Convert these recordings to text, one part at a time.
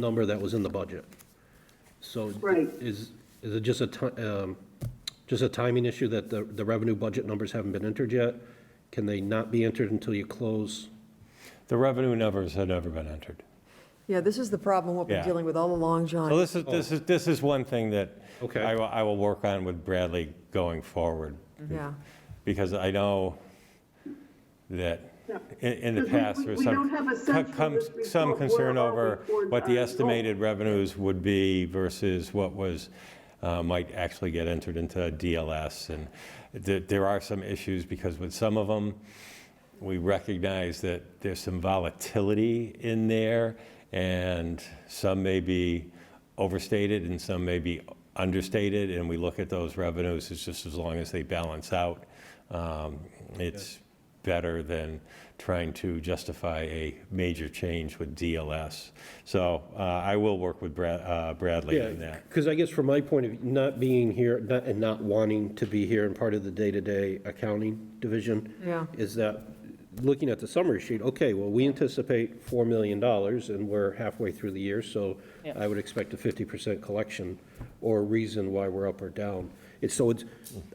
number that was in the budget. So Right. is, is it just a ti- um, just a timing issue that the, the revenue budget numbers haven't been entered yet? Can they not be entered until you close? The revenue numbers had never been entered. Yeah, this is the problem we've Yeah. been dealing with all along, John. So this is, this is, this is one thing that Okay. I will, I will work on with Bradley going forward. Yeah, Because I know that Yeah. in, in the Because we- past, we- there was we some. don't have a sense co- comes from this Some report where concern our over reports what the are estimated revenues would be versus what was, uh, might actually get entered into DLS. And there, there are some issues because with some of them, we recognize that there's some volatility in there, and some may be overstated and some may be understated, and we look at those revenues, it's just as long as they balance out, um, it's better than trying to justify a major change with DLS. So uh, I will work with Brad- uh, Bradley on that. Because I guess from my point of view, not being here, not, and not wanting to be here and part of the day-to-day accounting division. Yeah. Is that, looking at the summary sheet, okay, well, we anticipate four million dollars and we're halfway through the year, so I would expect a fifty percent collection or a reason why we're up or down. It's, so it's,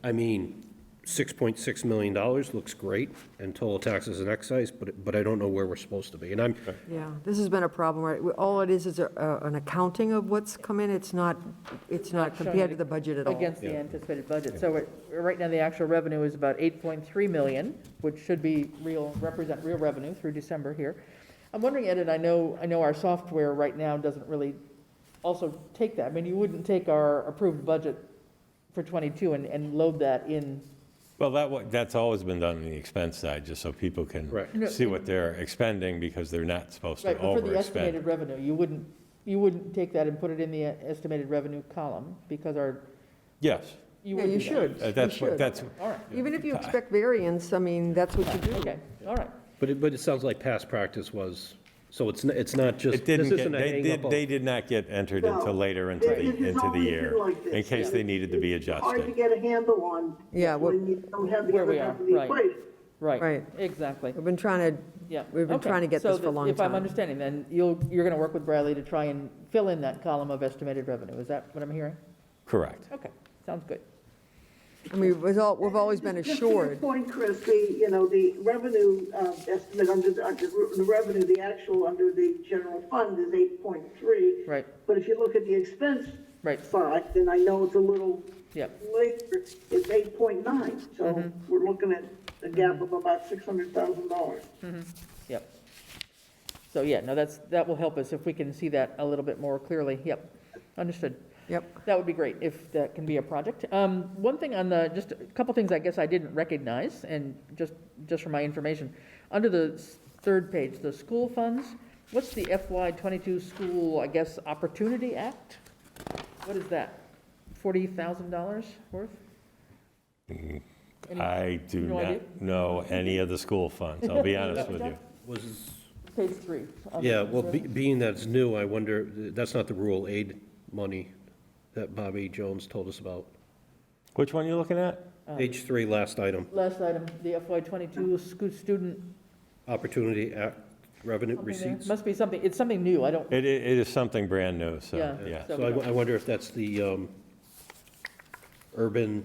I mean, six point six million dollars looks great in total taxes and excise, but, it- but I don't know where we're supposed to be. And I'm, yeah. This has been a problem, right? We- All it is is a- a- an accounting of what's come in. It's not, it's not compared to the budget at all. Against the anticipated budget. So it- right now, the actual revenue is about 8.3 million, which should be real, represent real revenue through December here. I'm wondering, Ed, and I know, I know our software right now doesn't really also take that. I mean, you wouldn't take our approved budget for '22 and, and load that in. Well, that, wa- that's always been done on the expense side, just so people can Right. No, see what they're expending, because they're not supposed to Right, but for the overexpend. estimated revenue, you wouldn't, you wouldn't take that and put it in the estimated revenue column because our, Yes, you Yeah, would you do that. should. uh, You that's, what- should. that's, All right, Even if you expect variance, I mean, that's what you do. okay, all right. but it, but it sounds like past practice was, so it's, n- it's not just, It this didn't isn't get, a they hang did, up of. they did not get entered No. until later into the, It- it has into the always year, been like this, in case yeah. they needed to be It's Hard to adjusted. get a handle on. Yeah, what- When you don't have the Where other we half are, of the right. equation. Right. Right. Exactly, We've been trying to, yeah. We've been Okay. trying to get So this for a that- long If I'm time. understanding, then you'll, you're going to work with Bradley to try and fill in that column of estimated revenue, is that what I'm hearing? Correct. Okay, sounds good. I mean, we've all- we've always been Just- just assured. to your point, Chris, the, you know, the revenue uh, estimate under, the- under the revenue, the actual under the general fund is 8.3. Right. But if you look at the expense Right. side, and I know it's a little Yep. later, it's 8.9. So Mm-hmm. we're looking at a gap of about $600,000. Yep. So, yeah, no, that's, that will help us if we can see that a little bit more clearly, yep, understood. Yep. That would be great if that can be a project. Um, One thing on the, just a couple things I guess I didn't recognize, and just, just for my information, under the s- third page, the school funds, what's the FY twenty-two school, I guess, Opportunity Act? What is that? Forty thousand dollars worth? Any- I do No idea? not know any of the school funds, I'll be honest with you. Was, Page three. on the- Yeah, well, be- being that it's new, I wonder, that's not the rural aid money that Bobby Jones told us about. Which one you looking at? Oh. Page three, last item, Last item, the FY twenty-two school student Opportunity Act revenue Something there. receipts. Must be something, it's something new, I don't, It, it it is something brand new, so, Yeah. yeah. So I I wonder if that's the um, urban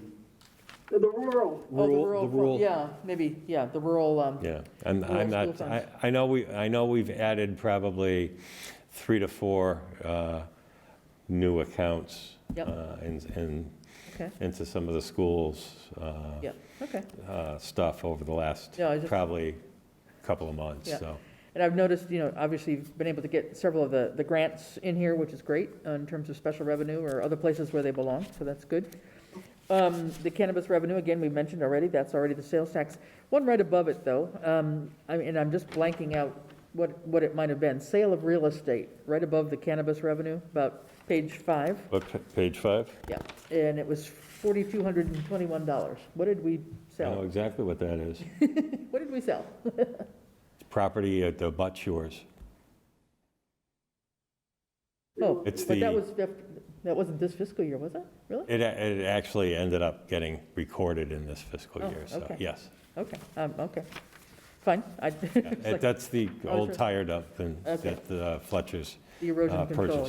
The rural, oh, the rural, the rural, rural. yeah, maybe, yeah, the rural, um, Yeah, I'm, Rural I'm not, school I, funds. I know we, I know we've added probably three to four uh, new accounts. Yep. uh, in- in- okay, into some of the schools' uh, yeah, okay. uh, stuff over the last Yeah, I just- probably couple of months, Yeah. so. And I've noticed, you know, obviously, you've been able to get several of the, the grants in here, which is great, uh, in terms of special revenue or other places where they belong, so that's good. Um, The cannabis revenue, again, we mentioned already, that's already the sales tax. One right above it, though, um, I mean, and I'm just blanking out what, what it might have been, sale of real estate, right above the cannabis revenue, about page five. What, pa- page five? Yeah, and it was forty-two hundred and twenty-one dollars. What did I we know sell? exactly what that is. What did we sell? It's Property at the Butt Shores. Oh, It's But that the- was, fif- that wasn't this fiscal year, was it? Really? It, a- it actually ended up getting recorded in this fiscal Oh, year, so, okay. yes. Okay, um, okay. Fine, I, it's It- like- That's the was old re- tire dump in- Okay. at the Fletcher's. The erosion uh, control, purchase